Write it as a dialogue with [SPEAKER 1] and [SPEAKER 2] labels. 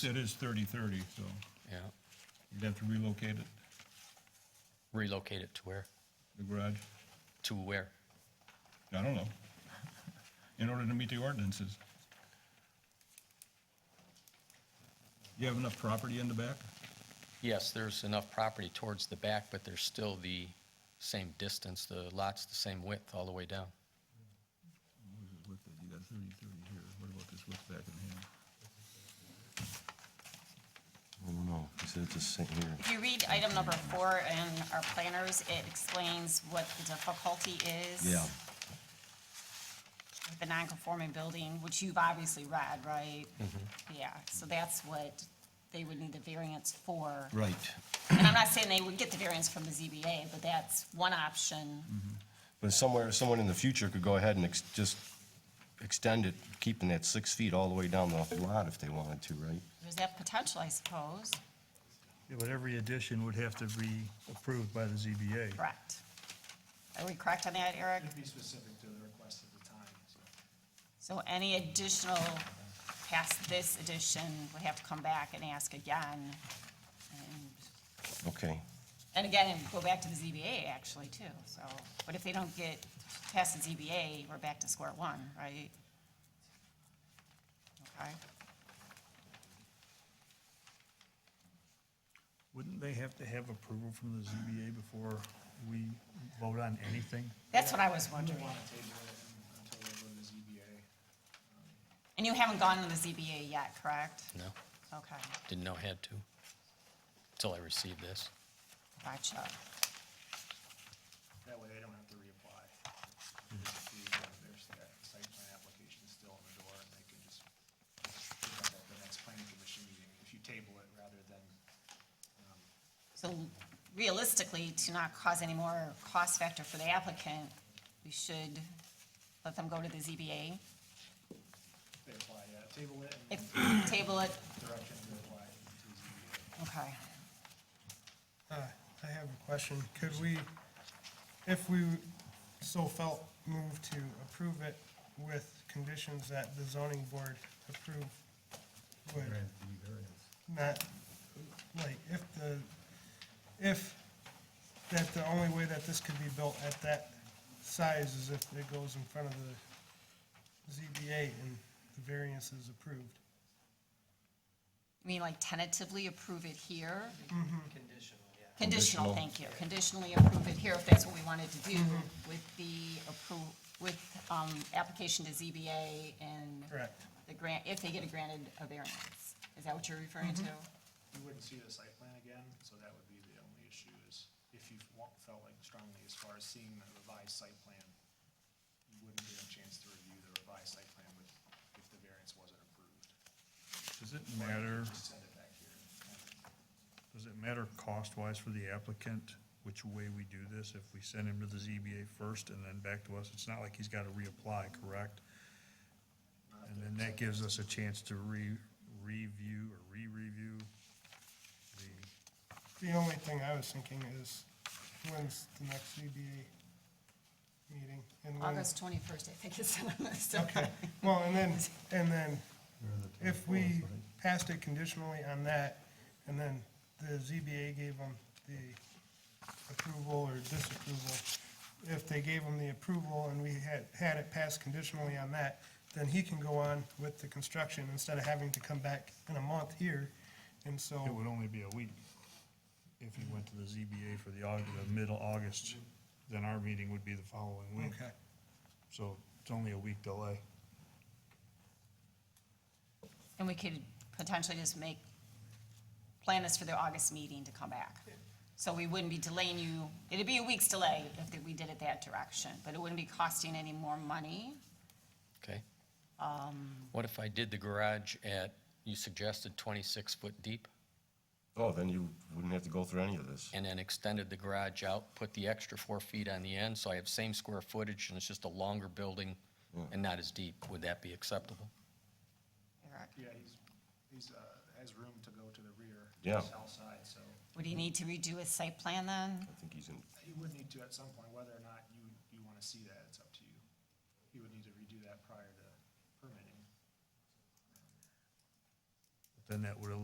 [SPEAKER 1] It is thirty-thirty, so
[SPEAKER 2] Yeah,
[SPEAKER 1] you'd have to relocate it,
[SPEAKER 2] relocate it to where?
[SPEAKER 1] the garage.
[SPEAKER 2] To where?
[SPEAKER 1] I don't know. In order to meet the ordinances. You have enough property in the back?
[SPEAKER 2] Yes, there's enough property towards the back, but there's still the same distance, the lot's the same width all the way down.
[SPEAKER 1] Where's his width at? You got thirty, thirty here. What about this width back in here?
[SPEAKER 3] I don't know, he said it's just sitting here.
[SPEAKER 4] If you read item number four in our planners, it explains what the difficulty is.
[SPEAKER 3] Yeah.
[SPEAKER 4] with The non-conforming building, which you've obviously read, right?
[SPEAKER 3] Mm-hmm.
[SPEAKER 4] Yeah, so that's what they would need the variance for.
[SPEAKER 3] Right.
[SPEAKER 4] And I'm not saying they would get the variance from the ZBA, but that's one option.
[SPEAKER 3] Mm-hmm. But somewhere, someone in the future could go ahead and ex- just extend it, keeping that six feet all the way down the lot if they wanted to, right?
[SPEAKER 4] There's that potential, I suppose.
[SPEAKER 5] Yeah, but every addition would have to be approved by the ZBA.
[SPEAKER 4] Correct. Are we correct on that, Eric?
[SPEAKER 6] Be specific to the request at the time, so.
[SPEAKER 4] So any additional past this addition would have to come back and ask again. And
[SPEAKER 3] Okay,
[SPEAKER 4] And again, go back to the ZBA actually too, so, but if they don't get past the ZBA, we're back to square one, right? Okay,
[SPEAKER 5] Wouldn't they have to have approval from the ZBA before we vote on anything?
[SPEAKER 4] that's what I was
[SPEAKER 6] We
[SPEAKER 4] wondering.
[SPEAKER 6] want to table it until we go to the ZBA.
[SPEAKER 4] And you haven't gone to the ZBA yet, correct?
[SPEAKER 2] No,
[SPEAKER 4] Okay,
[SPEAKER 2] didn't know had to, until I received this.
[SPEAKER 4] gotcha.
[SPEAKER 6] That way they don't have to reapply. Just see whether Their sta- site plan application is still on the door, and they can just pick up at the next planning commission meeting if you table it rather than, um,
[SPEAKER 4] So realistically, to not cause any more cost factor for the applicant, we should let them go to the ZBA.
[SPEAKER 6] they apply, yeah, table it and
[SPEAKER 4] If, table it,
[SPEAKER 6] direct them to apply to the ZBA.
[SPEAKER 4] okay.
[SPEAKER 7] Uh, I have a question. Could we, if we so felt moved to approve it with conditions that the zoning board approve would not, like, if the, if, that the only way that this could be built at that size is if it goes in front of the ZBA and the variance is approved.
[SPEAKER 4] You mean like tentatively approve it here? Conditional,
[SPEAKER 7] Mm-hmm.
[SPEAKER 4] yeah. Conditional, thank you. Conditionally approve it here if that's what we wanted to do
[SPEAKER 7] Mm-hmm.
[SPEAKER 4] with the appro, with, um, application to ZBA and
[SPEAKER 7] Correct.
[SPEAKER 4] the grant, if they get a granted a variance. Is that what you're referring
[SPEAKER 7] Mm-hmm.
[SPEAKER 4] to?
[SPEAKER 6] You wouldn't see the site plan again, so that would be the only issue is if you wa- felt like strongly as far as seeing the revised site plan, you wouldn't get a chance to review the revised site plan with, if the variance wasn't approved.
[SPEAKER 5] Does it matter,
[SPEAKER 6] Just send it back here.
[SPEAKER 5] does it matter cost-wise for the applicant which way we do this? If we send him to the ZBA first and then back to us, it's not like he's got to reapply, correct? And then that gives us a chance to re, review or re-review the
[SPEAKER 7] The only thing I was thinking is, when's the next ZBA meeting? And when-
[SPEAKER 4] August twenty-first, I think is on the list.
[SPEAKER 7] Okay, well, and then, and then, if we passed it conditionally on that, and then the ZBA gave them the approval or disapproval, if they gave them the approval and we had, had it passed conditionally on that, then he can go on with the construction instead of having to come back in a month here, and so.
[SPEAKER 5] It would only be a week. If he went to the ZBA for the August, the middle August, then our meeting would be the following week.
[SPEAKER 7] Okay.
[SPEAKER 5] So it's only a week delay.
[SPEAKER 4] And we could potentially just make, plan this for the August meeting to come back. So we wouldn't be delaying you, it'd be a week's delay if we did it that direction, but it wouldn't be costing any more money.
[SPEAKER 2] Okay. What if I did the garage at, you suggested 26 foot deep,
[SPEAKER 3] oh, then you wouldn't have to go through any of this.
[SPEAKER 2] and then extended the garage out, put the extra four feet on the end, so I have same square footage, and it's just a longer building and not as deep? Would that be acceptable?
[SPEAKER 4] Eric,
[SPEAKER 6] Yeah, he's, he's, uh, has room to go to the rear.
[SPEAKER 3] Yeah.
[SPEAKER 6] South side, so
[SPEAKER 4] Would he need to redo his site plan then?
[SPEAKER 3] I think he's in,
[SPEAKER 6] he would need to at some point, whether or not you, you wanna see that, it's up to you. He would need to redo that prior to permitting.
[SPEAKER 5] then that would eliminate